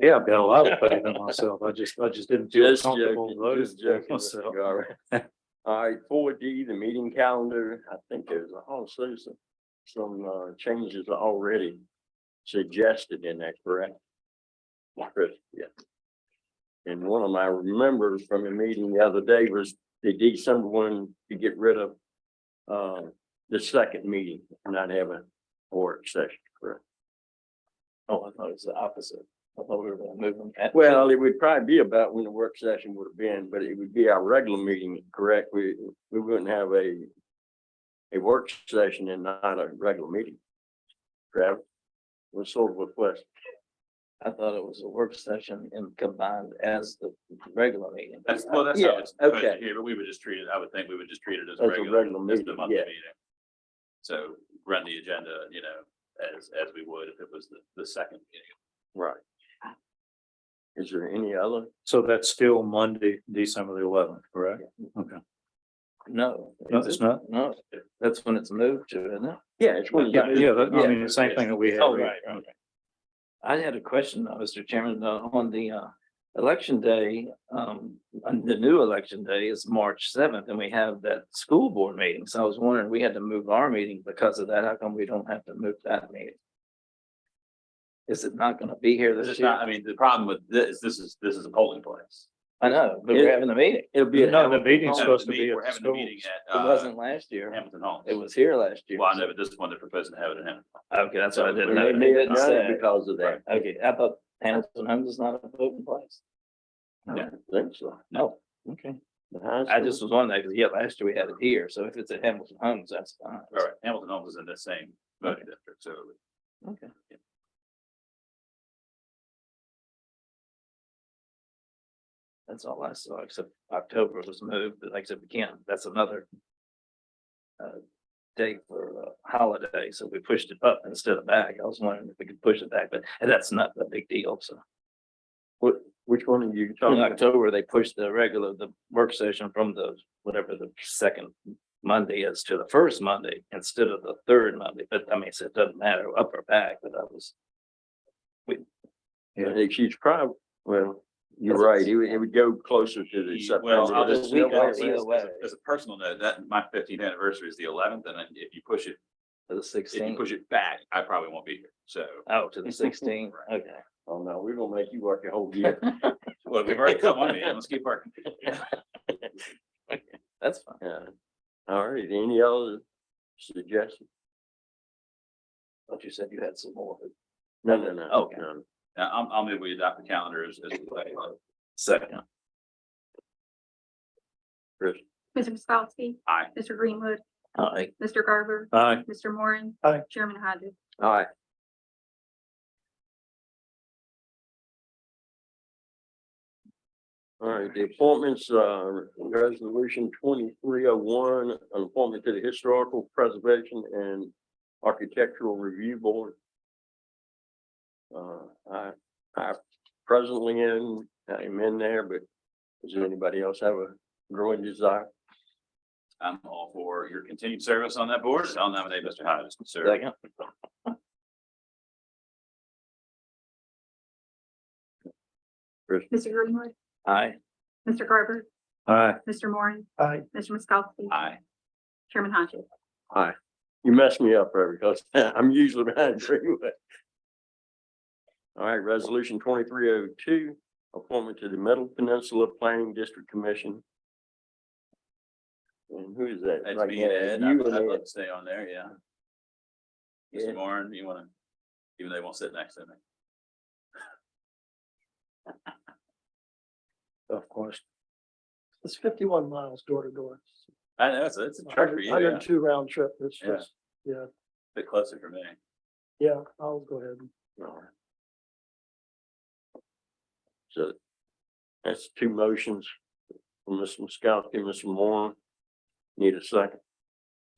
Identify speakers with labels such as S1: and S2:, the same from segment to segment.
S1: Yeah, I've got a lot of faith in myself. I just, I just didn't feel
S2: Just
S1: comfortable
S2: joking,
S1: voting
S2: just
S1: for
S2: joking. Mr.
S1: myself.
S2: Garvey. All right, four D, the meeting calendar, I think there's a whole series of some uh changes already suggested in that, correct? Chris, yeah. And one of my remembers from a meeting the other day was they did someone to get rid of uh the second meeting, not have a work session, correct?
S3: Oh, I thought it was the opposite. I thought we were gonna move them. at-
S2: Well, it would probably be about when the work session would have been, but it would be our regular meeting, correct? We, we wouldn't have a a work session and not a regular meeting. Travis, what's sort of a question?
S3: I thought it was a work session and combined as the regular meeting.
S4: That's, well, that's how
S2: Yeah,
S4: it's supposed
S2: okay.
S4: to here, but we would just treat it, I would think we would just treat it
S2: As
S4: as
S2: a
S4: a regular,
S2: regular
S4: just
S2: meeting,
S4: a monthly
S2: yeah.
S4: meeting. So run the agenda, you know, as, as we would if it was the, the second meeting.
S2: Right. Is there any other?
S1: So that's still Monday, December the eleventh, correct? Okay.
S3: No.
S1: No, it's not?
S3: No, that's when it's moved to, isn't it?
S2: Yeah, it's when.
S1: Yeah, yeah, that- I mean, the same
S4: Yeah.
S1: thing that we had.
S3: Oh, right, right, I had a question, uh, Mr. Chairman, uh, on the uh, election day, um, on the new election day is March seventh, and we have that school board meeting. So I was wondering, we had to move our meeting because of that. How come we don't have to move that meeting? Is it not gonna be here
S4: This
S3: this
S4: is not, I
S3: year?
S4: mean, the problem with this, this is, this is a polling place.
S3: I know, but we're having a meeting.
S2: It'll be. a-
S1: No, the meeting's
S4: We're
S1: supposed to be at
S4: having
S1: the
S4: a
S1: school.
S4: meeting at,
S3: It
S4: uh,
S3: wasn't last year.
S4: Hamilton Hall.
S3: It was here last year.
S4: Well, I know, but this one, they're proposing to have it in Hamilton.
S3: Okay, that's what I
S2: We
S3: didn't know.
S2: may
S3: They
S2: be at
S3: didn't
S4: uh,
S2: none
S3: say.
S2: Because of that.
S3: Okay, I thought Hamilton Homes is not a voting place.
S2: I don't think so.
S3: No, okay.
S2: The high
S3: I
S2: school-
S3: just was wondering, because yeah, last year we had it here, so if it's at Hamilton Homes, that's fine.
S4: All right, Hamilton Hall is in the same voting district, so.
S3: Okay. That's all I saw, except October was moved, but like I said, we can't, that's another. uh, Date for a holiday, so we pushed it up instead of back. I was wondering if we could push it back, but and that's not a big deal, so.
S2: What, which one are you
S3: In
S2: talking? about?
S3: October, they pushed the regular, the work session from the, whatever the second Monday is to the first Monday instead of the third Monday, but I mean, so it doesn't matter up or back, but that was.
S1: Yeah.
S2: It's huge problem. Well, you're
S3: Because
S2: right.
S3: it's-
S2: It would, it would go closer to the.
S4: Ye- Well,
S2: September.
S4: I'll
S3: September.
S4: just,
S3: We
S4: I'll
S3: go
S4: just-
S3: either
S4: as
S3: way.
S4: a- as a personal note, that my fifteenth anniversary is the eleventh, and then if you push it,
S3: To the
S4: if you
S3: sixteenth,
S4: push it back, I probably won't be here, so.
S3: oh, to the sixteenth, okay.
S2: Oh, no, we're gonna make you work a whole year.
S4: Well, we've already come on, man, let's keep working.
S3: That's fine.
S2: Yeah. All right, any other suggestions?
S3: But you said you had some more.
S2: No, no, no.
S3: Okay.
S2: no.
S4: Now, I'm, I'll move we adopt the calendar as, as. we go.
S3: Second.
S5: Mr. Miskowski.
S4: Aye.
S5: Mr. Greenwood,
S3: All right,
S5: Mr. Garber,
S1: Aye.
S5: Mr. Moran.
S1: Aye.
S5: Chairman Hodges.
S2: All right. All right, the appointments, uh, resolution twenty-three oh one, an appointment to the Historical Preservation and Architectural Review Board. Uh, I, I presently am, I'm in there, but does anybody else have a growing desire?
S4: I'm all for your continued service on that board, I'll nominate Mr. Hodges, sir.
S3: second.
S5: Mr. Greenwood,
S3: Aye.
S5: Mr. Garber,
S1: Aye.
S5: Mr. Moran.
S1: Aye.
S5: Mr. Miskowski.
S4: Aye.
S5: Chairman Hodges.
S2: You messed me up, Reverend, because I'm usually behind three. but- All right, resolution twenty-three oh two, appointment to the Middle Peninsula Planning District Commission. And who is that?
S4: That's
S2: Right
S4: me,
S2: now,
S4: Ed, I'd
S2: you and
S4: I'd
S2: Ed.
S4: love to stay on there, yeah.
S2: Yeah.
S4: Mr. Moran, you wanna, even though you won't sit next to me,
S1: Of course.
S6: It's fifty-one miles door to door.
S4: I know, it's, a- it's a trek for you, yeah,
S6: Hundred and
S4: a
S6: two round trip. It's
S4: Yeah.
S6: just, yeah,
S4: bit closer for me.
S6: yeah, I'll go ahead.
S2: All right. So that's two motions from Mr. Miskowski, Mr. Moore. Need a second?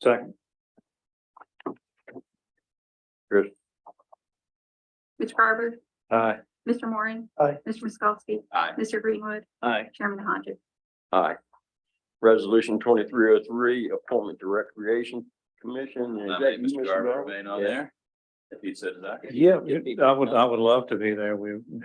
S1: Second.
S5: Mr. Garber,
S1: Aye.
S5: Mr. Moran.
S6: Aye.
S5: Mr. Miskowski,
S4: Aye.
S5: Mr. Greenwood,
S3: Aye.
S5: Chairman Hodges.
S2: Aye. Resolution twenty-three oh three, appointment to Recreation Commission. Is that
S4: Nominate
S2: you,
S4: Mr. Garber,
S2: Garber?
S4: remain on
S2: Yeah.
S4: there, if you so desire.
S1: Yeah, I would, I would love to be there. We